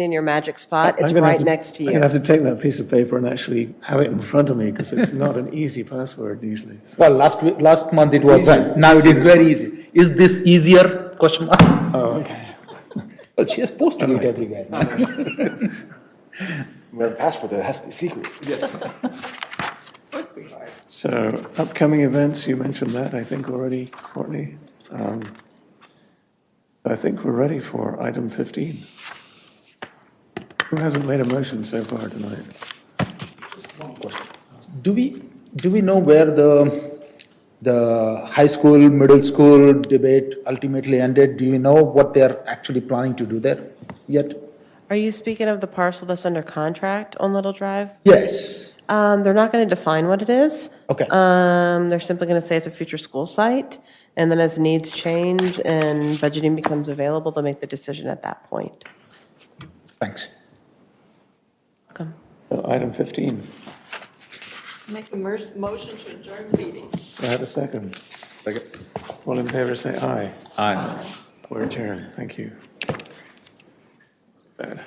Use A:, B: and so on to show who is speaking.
A: in your magic spot. It's
B: I'm gonna have
A: right
B: to-
A: next to
B: I'm going
A: you.
B: to have to take that piece of paper and actually have it in front of me because it's not an easy password usually.
C: Well, last week, last month it wasn't. Now it is very easy. Is this easier? Question mark.
B: Oh, okay.
C: Well, she has posted it everywhere.
D: We have a passport that has to be secret.
B: So upcoming events, you mentioned that, I think, already, Courtney. Um, I think we're ready for item 15. Who hasn't made a motion so far tonight?
C: Do we, do we know where the, the high school, middle school debate ultimately ended? Do you know what they're actually planning to do there yet?
A: Are you speaking of the parcel that's under contract on Little Drive?
C: Yes.
A: Um, they're not going to define what it is.
C: Okay.
A: Um, they're simply going to say it's a future school site, and then as needs change and budgeting becomes available, they'll make the decision at that point.
C: Thanks.
A: Come.
B: So Item 15,
E: Make a mer- motion to adjourn the meeting.
B: do I have a second? Second. All in favor, say aye. Aye. We're adjourned, thank you. Bad.